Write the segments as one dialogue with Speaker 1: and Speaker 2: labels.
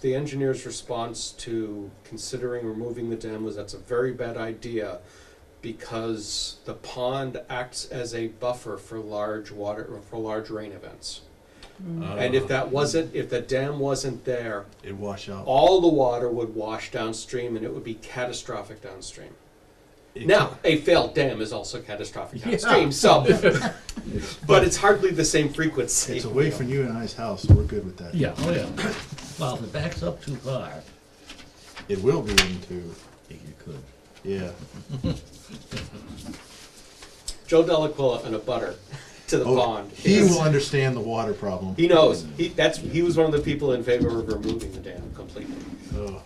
Speaker 1: the engineer's response to considering removing the dam was that's a very bad idea because the pond acts as a buffer for large water, for large rain events.
Speaker 2: Mm.
Speaker 1: And if that wasn't, if the dam wasn't there,
Speaker 2: It wash out.
Speaker 1: all the water would wash downstream and it would be catastrophic downstream.
Speaker 2: It
Speaker 1: Now, a failed dam is also catastrophic downstream, so, but it's hardly the same
Speaker 2: ca- It's
Speaker 1: frequency.
Speaker 2: away from you and I's house, so we're good with that.
Speaker 3: Yeah, oh yeah. Well, if it backs up too far,
Speaker 2: It will be into,
Speaker 3: you could.
Speaker 2: yeah.
Speaker 1: Joe Delaquila and a butter to the
Speaker 2: Oh,
Speaker 1: pond.
Speaker 2: He
Speaker 1: is-
Speaker 2: will understand the water problem.
Speaker 1: He knows. He that's he was one of the people in favor of removing the dam completely.
Speaker 2: Ugh.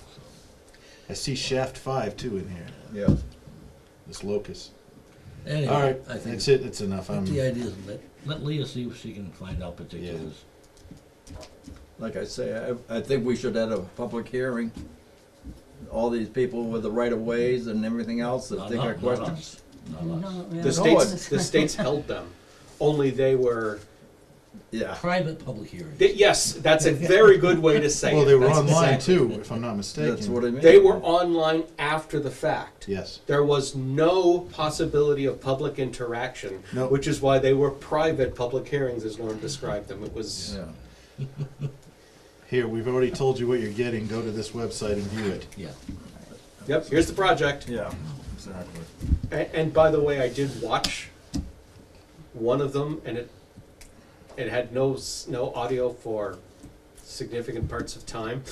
Speaker 2: I see shaft five too in here,
Speaker 4: Yeah.
Speaker 2: this locus.
Speaker 3: Anyway,
Speaker 2: All right,
Speaker 3: I think
Speaker 2: that's it, Um, that's enough.
Speaker 3: but
Speaker 2: I'm,
Speaker 3: the idea is let, let Leah see if she can find out particulars.
Speaker 4: Like I say, I, I think we should have a public hearing. All these people with the right of ways and everything else that
Speaker 3: Not-
Speaker 4: they got
Speaker 3: not- not
Speaker 4: questions.
Speaker 3: us, Not us.
Speaker 1: The
Speaker 4: No,
Speaker 1: states the states held them. Only they were
Speaker 4: Yeah.
Speaker 3: Private public hearing.
Speaker 1: they, yes, that's a very good way to say
Speaker 2: well,
Speaker 1: it.
Speaker 2: they were
Speaker 1: That's
Speaker 2: online
Speaker 1: exactly-
Speaker 2: too, if I'm not mistaken.
Speaker 4: That's what I mean.
Speaker 1: They were online after the fact.
Speaker 2: Yes.
Speaker 1: There was no possibility of public interaction,
Speaker 2: No.
Speaker 1: which is why they were private public hearings, as Norm described them. It was
Speaker 4: Yeah.
Speaker 2: Here, we've already told you what you're getting. Go to this website and view it.
Speaker 3: Yeah.
Speaker 1: yep. Here's the project.
Speaker 4: Yeah, exactly.
Speaker 1: And, and by the way, I did watch one of them, and it it had no s- no audio for significant parts of time.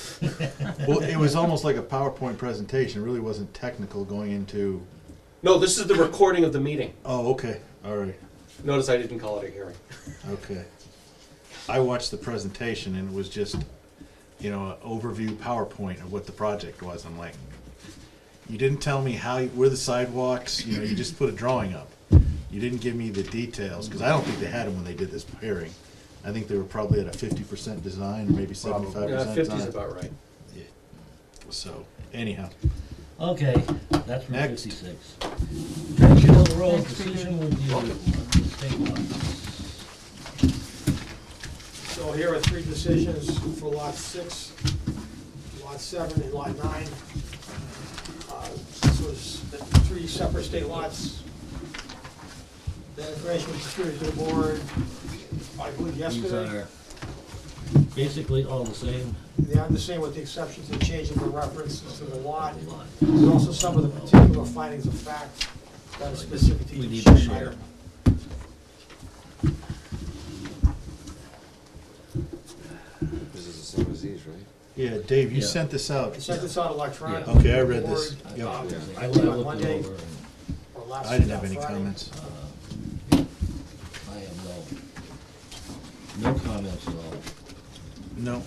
Speaker 2: Well, it was almost like a PowerPoint presentation. It really wasn't technical going into,
Speaker 1: No, this is the recording of the meeting.
Speaker 2: oh, okay, all right,
Speaker 1: Notice I didn't call it a hearing.
Speaker 2: okay. I watched the presentation and it was just, you know, an overview PowerPoint of what the project was. I'm like, you didn't tell me how, you- where the sidewalks, you know, you just put a drawing up. You didn't give me the details, because I don't think they had them when they did this hearing. I think they were probably at a fifty percent design, or maybe seventy-five
Speaker 1: Yeah,
Speaker 2: percent
Speaker 1: Uh, fifty's
Speaker 2: design.
Speaker 1: about right.
Speaker 2: Yeah. So, anyhow,
Speaker 3: Okay, that's from
Speaker 2: Next.
Speaker 3: fifty-six. Churchill Hill Road,
Speaker 5: Thanks, Peter.
Speaker 3: decision review. on the state law.
Speaker 6: So here are three decisions for lot six, lot seven, and lot nine. Uh, This was the three separate state lots. The information was distributed to the board, I believe
Speaker 3: These
Speaker 6: yesterday.
Speaker 3: are basically all the same.
Speaker 6: They are the same with the exceptions of changing the references to the lot.
Speaker 3: lot.
Speaker 6: There's also some of the particular findings of fact that are specific to
Speaker 3: We need
Speaker 6: each
Speaker 3: to share.
Speaker 6: item.
Speaker 7: This is the same as these, right?
Speaker 2: yeah, Dave, you
Speaker 3: Yeah.
Speaker 2: sent this out.
Speaker 6: I sent this out electronically.
Speaker 2: Yeah. Okay, I read this.
Speaker 6: to the board,
Speaker 2: Yep.
Speaker 6: uh,
Speaker 3: I I
Speaker 6: on
Speaker 3: looked it
Speaker 6: Monday
Speaker 3: over and
Speaker 6: or last
Speaker 2: I didn't have any
Speaker 6: Friday.
Speaker 2: comments.
Speaker 3: I have no, no comments at all.
Speaker 2: No.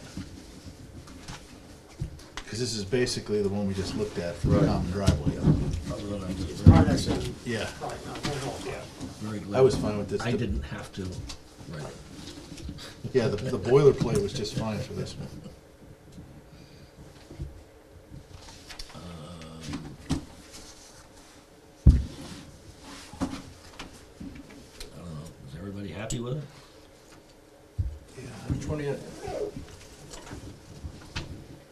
Speaker 2: Because this is basically the one we just looked at for the
Speaker 7: Right.
Speaker 2: common driveway.
Speaker 3: Other than I'm just
Speaker 6: Products
Speaker 3: very,
Speaker 6: and,
Speaker 2: Yeah,
Speaker 6: probably not, no, no, yeah.
Speaker 3: very glad.
Speaker 2: I was fine with this.
Speaker 3: I
Speaker 2: The-
Speaker 3: didn't have to write it.
Speaker 2: Yeah, the, the boilerplate was just fine for this one.
Speaker 3: Um, I don't know, is everybody happy with it?
Speaker 4: Which one are you?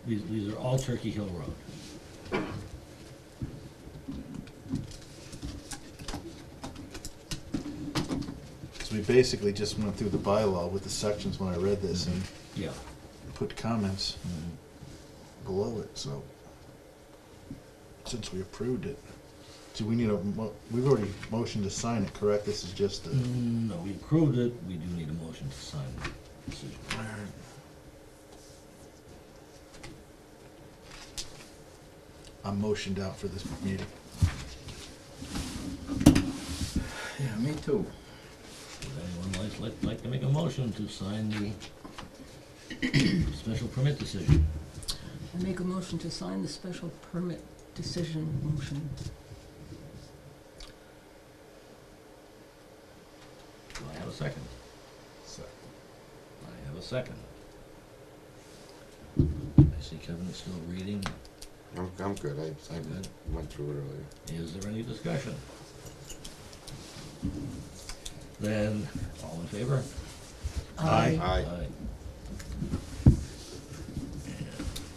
Speaker 3: These, these are all Turkey Hill Road.
Speaker 2: So we basically just went through the bylaw with the sections when I read this and
Speaker 3: Yeah.
Speaker 2: put comments below it, so. Since we approved it. So we need a, mo- we've already motioned to sign it, correct? This is just the.
Speaker 3: No, we approved it, we do need a motion to sign the decision.
Speaker 2: I'm motioned out for this meeting.
Speaker 4: Yeah, me too.
Speaker 3: Would anyone like, like, like to make a motion to sign the special permit decision?
Speaker 5: I make a motion to sign the special permit decision motion.
Speaker 3: Do I have a second? Second. I have a second. I see Kevin is still reading.
Speaker 7: I'm, I'm good. I, I
Speaker 3: Good.
Speaker 7: went through it earlier.
Speaker 3: Is there any discussion? Then, all in favor?
Speaker 2: Aye.
Speaker 7: Aye.
Speaker 3: Aye.